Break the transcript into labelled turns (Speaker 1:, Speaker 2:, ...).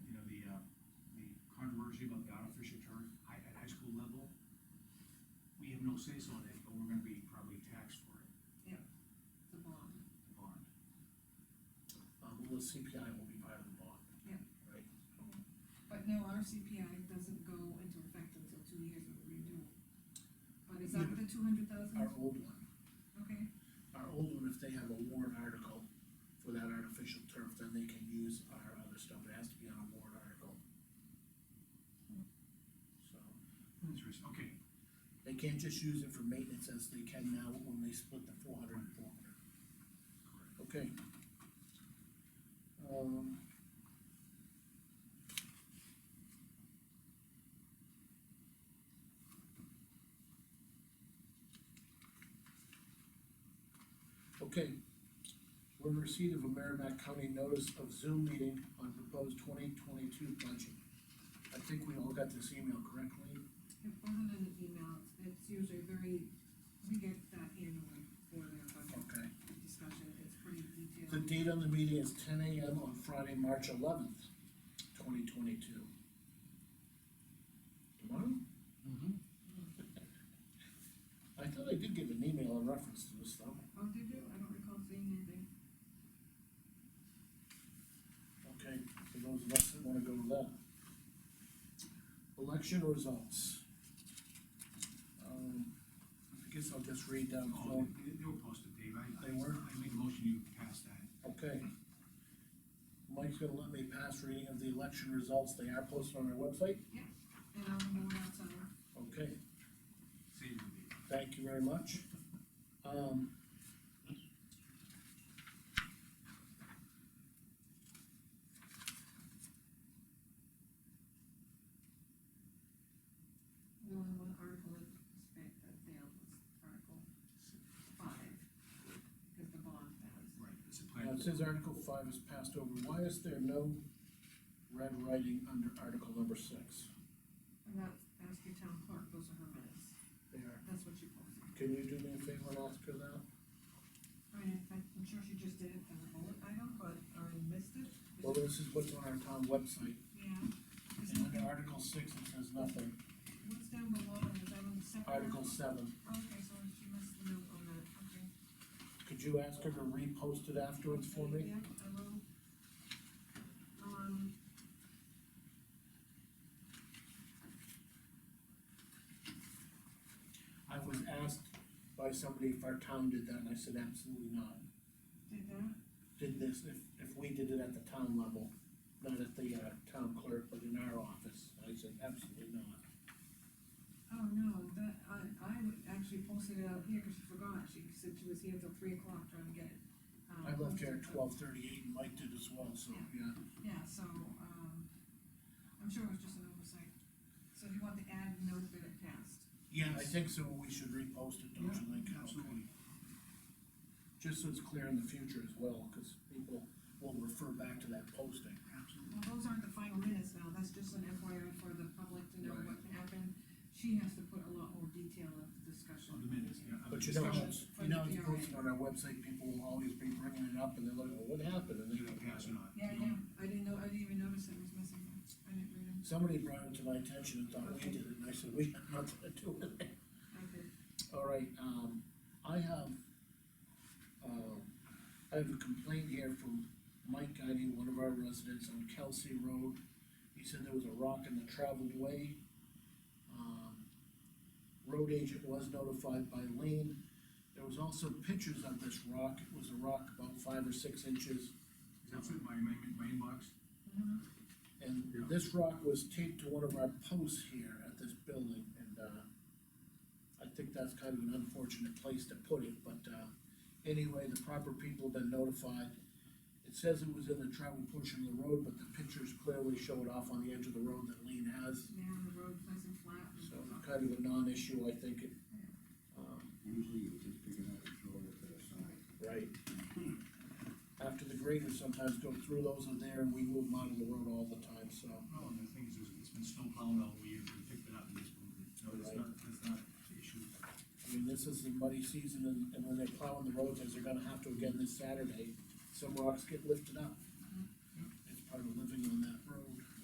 Speaker 1: um, have no say so on it, but we're gonna be probably taxed for it,
Speaker 2: the bond.
Speaker 1: the bond.
Speaker 3: Um, well, the CPI will be part of the bond.
Speaker 2: Yeah.
Speaker 3: Right,
Speaker 2: But no, our CPI doesn't go into effect until two years of renewal. But is that
Speaker 3: Yeah.
Speaker 2: the two hundred thousand?
Speaker 3: our old one,
Speaker 2: Okay,
Speaker 3: our old one, if they have a warrant article for that artificial turf, then they can use our other stuff, it has to be on a warrant article. So,
Speaker 1: Interesting, okay,
Speaker 3: they can't just use it for maintenance as they can now when they split the four hundred and four hundred.
Speaker 1: correct.
Speaker 3: Okay. Um. Okay. We're in receipt of a Merrimack County notice of Zoom meeting on proposed twenty twenty-two budget. I think we all got this email correctly.
Speaker 2: it wasn't in an email, it's usually very, we get that annually for their budget
Speaker 3: Okay.
Speaker 2: discussion, it's pretty
Speaker 3: The
Speaker 2: detailed.
Speaker 3: date on the meeting is ten AM on Friday, March eleventh, twenty twenty-two. Tomorrow? Mm-hmm. I thought I did give an email in reference to this though.
Speaker 2: Oh, did you? I don't recall seeing anything.
Speaker 3: Okay, for those of us that wanna go to that. Election results. Um, I guess I'll just read down,
Speaker 1: Oh,
Speaker 3: so,
Speaker 1: they, they were posted, Dave, I, I,
Speaker 3: They were?
Speaker 1: I make a motion you pass that.
Speaker 3: okay. Mike's gonna let me pass reading of the election results, they are posted on our website,
Speaker 2: And I'll move out to,
Speaker 3: okay.
Speaker 1: Save it, Dave.
Speaker 3: Thank you very much. Um.
Speaker 2: the only one article that spec, that failed was article five, because the bond passed.
Speaker 1: Right, it's a
Speaker 3: Now,
Speaker 1: plan.
Speaker 3: Uh, it says Article five is passed over, why is there no red writing under Article number six?
Speaker 2: And that, ask your town clerk, those are her minutes,
Speaker 3: There,
Speaker 2: that's what she posted.
Speaker 3: can you do me a favor and ask her that?
Speaker 2: I mean, in fact, I'm sure she just did it as a bullet item, but I missed it.
Speaker 3: Well, this is what's on our town website,
Speaker 2: Yeah. Is
Speaker 3: and
Speaker 2: it-
Speaker 3: under Article six, it says nothing,
Speaker 2: What's down below, is that on the second?
Speaker 3: Article seven,
Speaker 2: Okay, so she missed the note on that, okay.
Speaker 3: could you ask her to repost it afterwards for me?
Speaker 2: Yeah, I will. Um.
Speaker 3: I was asked by somebody if our town did that, and I said absolutely not.
Speaker 2: Did that?
Speaker 3: did this, if, if we did it at the town level, not at the, uh, town clerk, but in our office, I said, absolutely not.
Speaker 2: Oh, no, that, I, I would- actually posted it out here because she forgot, she said she was here till three o'clock trying to get it. um,
Speaker 3: I left
Speaker 2: posted,
Speaker 3: here at
Speaker 2: but-
Speaker 3: twelve thirty-eight, and Mike did as well, so, yeah.
Speaker 2: Yeah, so, um, I'm sure it was just an oversight. So if you want to add a note that it passed,
Speaker 3: Yeah, I think so, we should repost it, don't you think?
Speaker 1: Absolutely.
Speaker 3: Just so it's clear in the future as well, cause people will refer back to that posting.
Speaker 1: Absolutely.
Speaker 2: well, those aren't the final minutes now, that's just an FYI for the public to know
Speaker 3: Right.
Speaker 2: what happened. She has to put a lot more detail of the discussion.
Speaker 1: On the minutes, yeah. of the
Speaker 3: But you know,
Speaker 1: discussion.
Speaker 3: it's- you know, it's posted on our website, people will always be bringing it up, and they're like, well, what happened, and
Speaker 1: Did I
Speaker 3: they.
Speaker 1: pass or not?
Speaker 2: Yeah, yeah, I didn't know, I didn't even notice it was missing, I didn't read it,
Speaker 3: Somebody brought it to my attention and thought we did it, and I said, we have nothing to do with it.
Speaker 2: I did.
Speaker 3: All right, um, I have, uh, I have a complaint here from Mike Guiney, one of our residents on Kelsey Road. He said there was a rock in the traveled way. Um, Road agent was notified by Lane. There was also pictures of this rock. It was a rock about five or six inches.
Speaker 1: Is that what my, my, my inbox?
Speaker 3: And
Speaker 1: Yeah.
Speaker 3: this rock was taped to one of our posts here at this building, and, uh, I think that's kind of an unfortunate place to put it, but, uh, anyway, the proper people have been notified. It says it was in the travel portion of the road, but the pictures clearly show it off on the edge of the road that Lean has,
Speaker 2: Yeah, and the road nice and flat.
Speaker 3: so kind of a non-issue, I think, it, um,
Speaker 4: Usually you just pick it up and throw it to the side.
Speaker 3: Right. After the graders sometimes go through those in there, and we move them out of the road all the time, so.
Speaker 1: No, Oh, and the thing is, is it's been snowplowed all year, we picked it up and just moved it. No, that's
Speaker 3: Right.
Speaker 1: not, that's not the issue.
Speaker 3: I mean, this is the muddy season, and, and when they're plowing the roads, as they're gonna have to again this Saturday, some rocks get lifted up.